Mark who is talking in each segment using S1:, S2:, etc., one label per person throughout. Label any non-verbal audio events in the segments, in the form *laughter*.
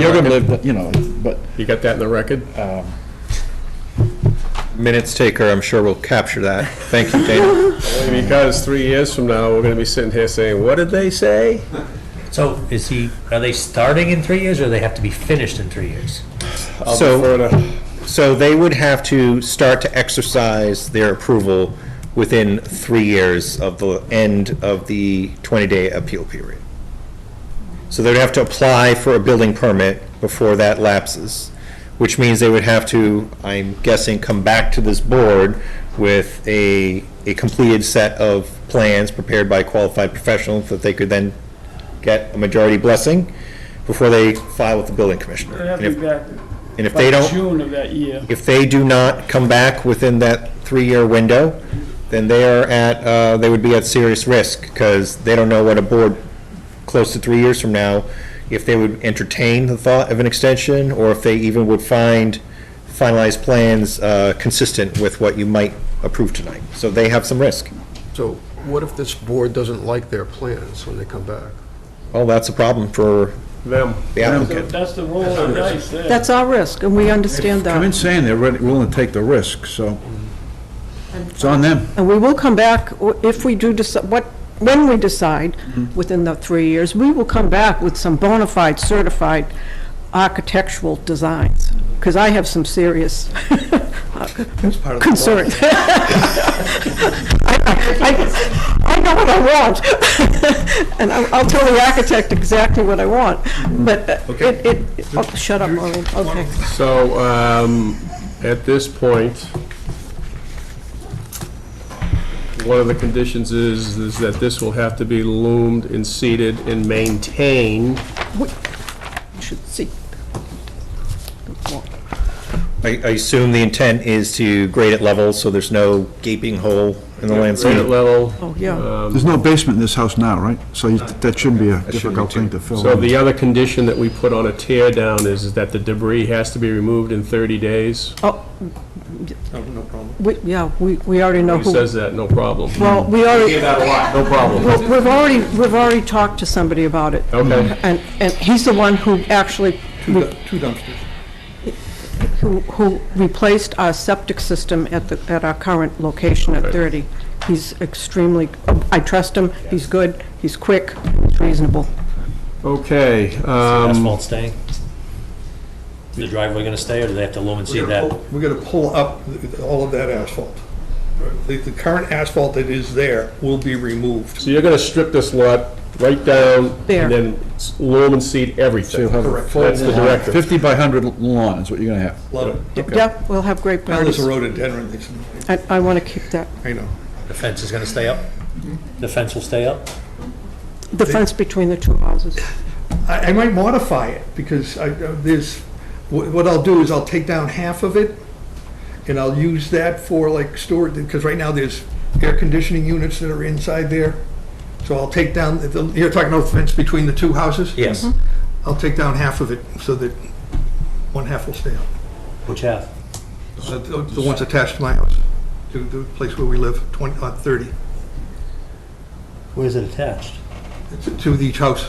S1: You're gonna live, you know, but,
S2: You got that in the record?
S3: Minutes taker, I'm sure will capture that. Thank you, Dana.
S2: Because three years from now, we're gonna be sitting here saying, what did they say?
S4: So is he, are they starting in three years or they have to be finished in three years?
S2: I'll
S3: So-
S2: defer to-
S3: So they would have to start to exercise their approval within three years of the end of the 20-day appeal period. So they'd have to apply for a building permit before that lapses, which means they would have to, I'm guessing, come back to this board with a, a completed set of plans prepared by qualified professionals that they could then get a majority blessing before they file with the building commissioner.
S5: They have
S3: And
S5: to
S3: if-
S5: be back
S3: And if they
S5: by
S3: don't.
S5: June of that year.
S3: If they do not come back within that three-year window, then they are at, uh, they would be at serious risk, because they don't know what a board close to three years from now, if they would entertain the thought of an extension, or if they even would find finalized plans uh, consistent with what you might approve tonight. So they have some risk.
S6: So what if this board doesn't like their plans when they come back?
S3: Well, that's a problem for
S2: them.
S3: the
S5: So
S3: applicant.
S5: that's the roll of the dice there.
S7: That's our risk, and we understand
S1: come in
S7: that.
S1: saying they're ready- willing to take the risk, so it's on them.
S7: And we will come back, or if we do decide, what, when we decide,
S1: Mm-hmm.
S7: within the three years, we will come back with some bona fide certified architectural designs, because I have some serious concerns. I *laughs* I- I know what I want, *laughs* and I'll I'll tell the architect exactly what I want,
S1: Mm-hmm.
S7: but it, it, oh, shut up, Arlen, okay.
S2: So, um, at this point, one of the conditions is, is that this will have to be loomed and seeded and maintained.
S7: Should see.
S3: I I assume the intent is to grade it level, so there's no gaping hole in the landscape.
S2: Grade level.
S7: Oh, yeah.
S1: There's no basement in this house now, right? So you- that shouldn't be a difficult thing to fill
S2: So
S1: in.
S2: the other condition that we put on a tear down is that the debris has to be removed in 30 days.
S7: Oh.
S8: Oh,
S7: We, yeah, we, we already know
S2: Who
S7: who.
S2: says that? No problem.
S7: Well, we already,
S2: No problem.
S7: well, we've already, we've already talked to somebody about it.
S2: Okay.
S7: And, and he's the one who actually, re-
S8: Two dumpsters.
S7: who, who replaced our septic system at the, at our current location at 30. He's extremely, I trust him, he's good, he's quick, he's reasonable.
S2: Okay, um,
S4: Asphalt staying? Is the driveway gonna stay or do they have to loom and seed that?
S8: We're gonna pull up th- all of that asphalt. The, the current asphalt that is there will be removed.
S2: so you're gonna strip this lot right down
S7: There.
S2: and then s- loam and seed everything.
S1: you'll have a
S8: Correct.
S2: That's the directive.
S1: 50 by 100 lawn is what you're gonna have.
S8: Love it.
S7: Yeah, we'll have great
S8: Well, there's
S7: parties.
S8: a rhododendron, there's-
S7: I, I want to keep that,
S8: I know.
S4: The fence is gonna stay up?
S8: Mm-hmm.
S4: The fence will stay up?
S7: the fence between the two houses.
S8: I, I might modify it, because I, uh, there's, what, what I'll do is I'll take down half of it, and I'll use that for like storage, because right now there's air conditioning units that are inside there. So I'll take down, the- you're talking about the fence between the two houses?
S4: Yes.
S8: I'll take down half of it, so that one half will stay up.
S4: Which half?
S8: The- The the ones attached to my house, to the place where we live, 20, uh, 30,
S4: Where is it attached?
S8: to- to each house.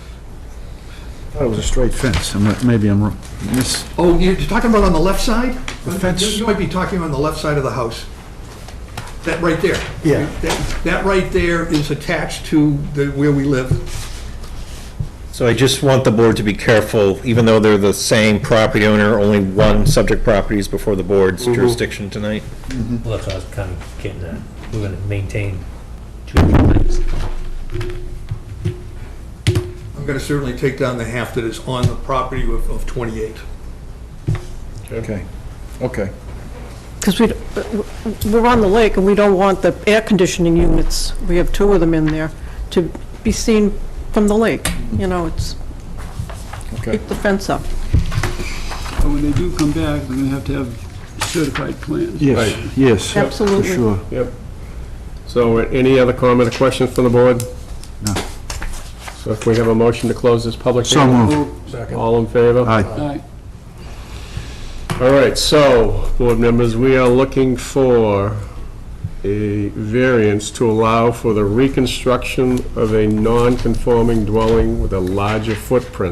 S1: I thought it was a straight fence, I'm not- maybe I'm wrong. Miss-
S8: Oh, you're talking about on the left side?
S1: The fence.
S8: You might be talking on the left side of the house. That right there. Yeah. That right there is attached to the, where we live.
S3: So I just want the board to be careful, even though they're the same property owner, only one subject property is before the board's jurisdiction tonight.
S8: Mm.
S4: Well, that's what I was kinda getting at. We're gonna maintain two different things.
S8: I'm going to certainly take down the half that is on the property of of 28.
S1: Okay, okay.
S7: Because we, we're on the lake, and we don't want the air conditioning units, we have two of them in there, to be seen from the lake, you know, it's,
S1: Okay.
S7: keep the fence up.
S9: But When they do come back, they're gonna have to have certified plans.
S1: Yes, yes.
S7: Absolutely.
S1: For sure.
S2: Yep. So uh, any other comment or questions from the board?
S1: No.
S2: So if we have a motion to close this public
S1: So
S2: hearing?
S1: moved.
S2: All in favor?
S1: Aye.
S9: Aye.
S2: All right, so, board members, we are looking for a variance to allow for the reconstruction of a non-conforming dwelling with a larger footprint